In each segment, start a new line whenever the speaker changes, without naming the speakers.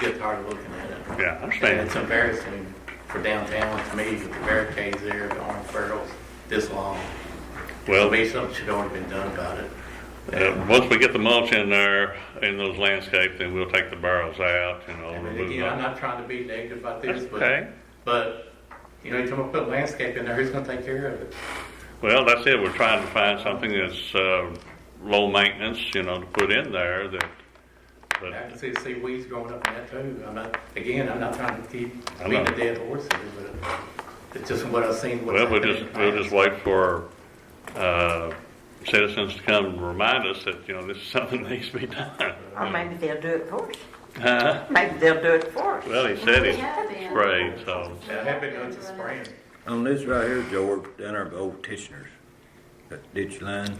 gets hard looking at it.
Yeah, I
And
understand.
it's embarrassing for downtown to me with the barricades there, the orange barrels, this long.
Well,
Maybe something should already been done about it.
uh, once we get the mulch in there, in those landscapes, then we'll take the barrels out and all
I mean,
remove
again, I'm
them.
not trying to be negative about this,
Okay,
but, but, you know, you come up with landscape in there, who's gonna take care of it?
well, that's it, we're trying to find something that's, uh, low maintenance, you know, to put in there that,
I
but,
can see, see weeds growing up in that too. I'm not, again, I'm not trying to keep
I
beating
know.
a dead horse here, but it's just what I've seen. what's
well, we'll
happened in
just,
the
we'll
past.
just wait for, uh, citizens to come and remind us that, you know, this is something that needs to be done.
Or maybe they'll do it for us.
Huh?
Maybe they'll do it for us.
Well, he said he sprayed, so, uh,
Yeah, I have been doing some spraying.
On this right here, George, down there by old Tishner's, that ditch line.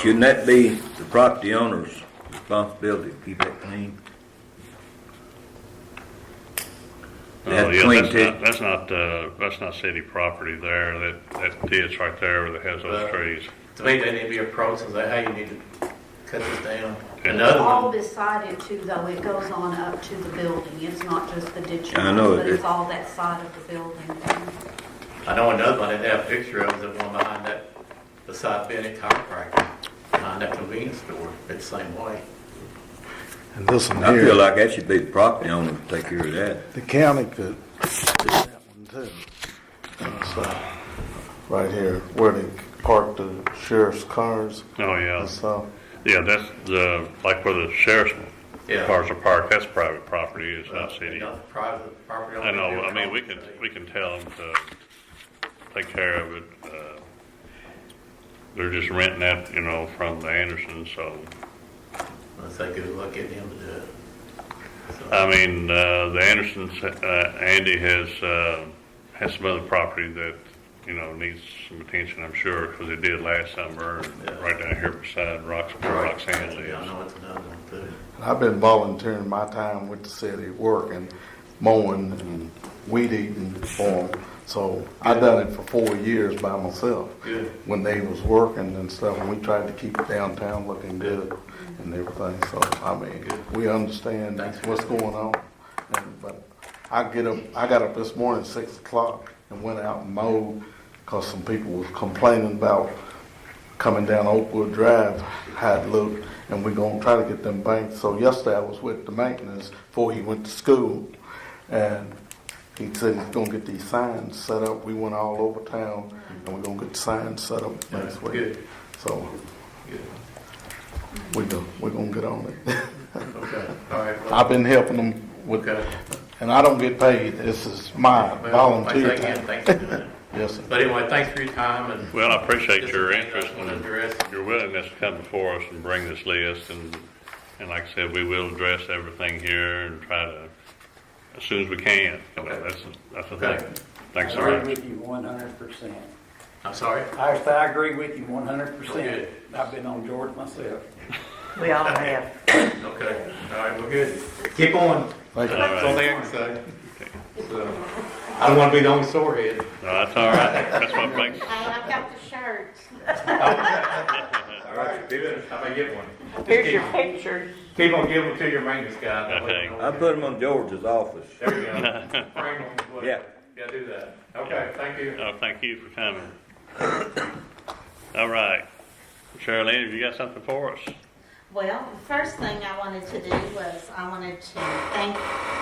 Shouldn't that be the property owner's responsibility to keep that clean? They have
oh, yeah,
clean
that's
tit-
not, that's not, uh, that's not city property there, that, that ditch right there that has
Well,
those trees.
To me, they need to be approached and say, hey, you need to cut this down.
Okay.
Another
All
one,
beside it too, though, it goes on up to the building, it's not just the ditch.
I know
But
it-
it's all that side of the building.
I know another one, they have a picture of the one behind that, beside Bennett Chiropractor, behind that convenience store, it's the same way.
And this one
I feel
here,
like that should be the property owner to take care of that.
the county could do that one too. So, Right here, where they park the sheriff's cars
Oh, yeah.
and stuff.
Yeah, that's the, like where the sheriff's
Yeah. Uh,
cars are parked, that's private property, it's not city.
Not the private property. owner,
I know,
they
I mean, we
approach
can,
and say,
we can tell them to take care of it. uh, They're just renting that, you know, from the Andersons, so,
Let's say good luck getting him to do it. So-
I mean, uh, the Andersons, uh, Andy has, uh, has some other property that, you know, needs some attention, I'm sure, because it did last summer,
Yeah.
right down here beside Rox, where
Right.
Roxanne
Yeah, I
lives.
know it's another one too.
I've been volunteering my time with the city, working, mowing and weed eating for them. So I done it for four years by myself.
Good.
When they was working and stuff, and we tried to keep downtown looking good and everything. So, I mean, we understand
Thanks.
what's going on. And- But I get up, I got up this morning at six o'clock and went out and mowed because some people was complaining about coming down Oakwood Drive, how it looked, and we're gonna try to get them banked. So yesterday I was with the maintenance before he went to school, and he said he's gonna get these signs set up. We went all over town, and we're gonna get the signs set up
Yeah,
next week.
Good,
So
good.
we go, we're gonna get on it.
Okay, all right. well,
I've been helping them with,
Okay.
and I don't get paid. This is my
Well,
volunteer
thanks again,
time.
Thanks for doing it.
Yes, sir.
But anyway, thanks for your time and.
Well, I appreciate your interest
and
in
address.
your willingness to come before us and bring this list, and, and like I said, we will address everything here and try to, as soon as we can. You know, That's, that's the
Okay.
thing. Thanks so
I agree
much.
with you one hundred percent.
I'm sorry?
I, I agree with you one hundred percent.
Good.
I've been on George myself.
We all have.
Okay, all right, we're good. Keep on.
Thank you.
That's all they can say. So, I don't want to be the only sore head.
No, that's all right. That's what makes,
I've got the shirts.
All right, do it. I may get one. Just
Here's
keep-
your picture.
Keep on giving them to your maintenance guy. That way you
I
know-
put them on George's office.
There we go. Frame them, whatever.
Yeah.
Yeah, do that. Okay, thank you.
oh, thank you for coming. All right. Cheryl Lynn, have you got something for us?
Well, the first thing I wanted to do was I wanted to thank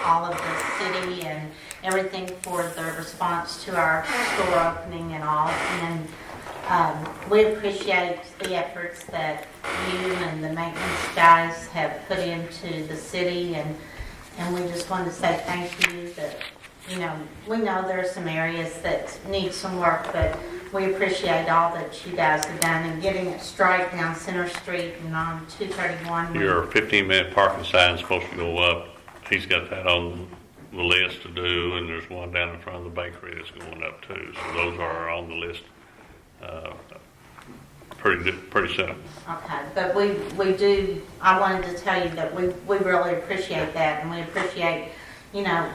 all of the city and everything for their response to our store opening and all. And um, we appreciate the efforts that you and the maintenance guys have put into the city and, and we just want to say thank you that, you know, we know there are some areas that need some work, but we appreciate all that you guys have done in getting it straight down Center Street and on 231.
Your 15-minute parking sign's supposed to go up. He's got that on the list to do, and there's one down in front of the bakery that's going up too. So those are on the list, uh, pretty, pretty soon.
Okay, but we, we do, I wanted to tell you that we, we really appreciate that, and we appreciate, you know,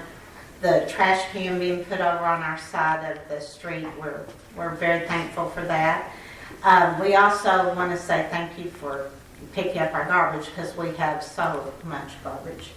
the trash can being put over on our side of the street. We're, we're very thankful for that. Um, we also want to say thank you for picking up our garbage because we have so much garbage.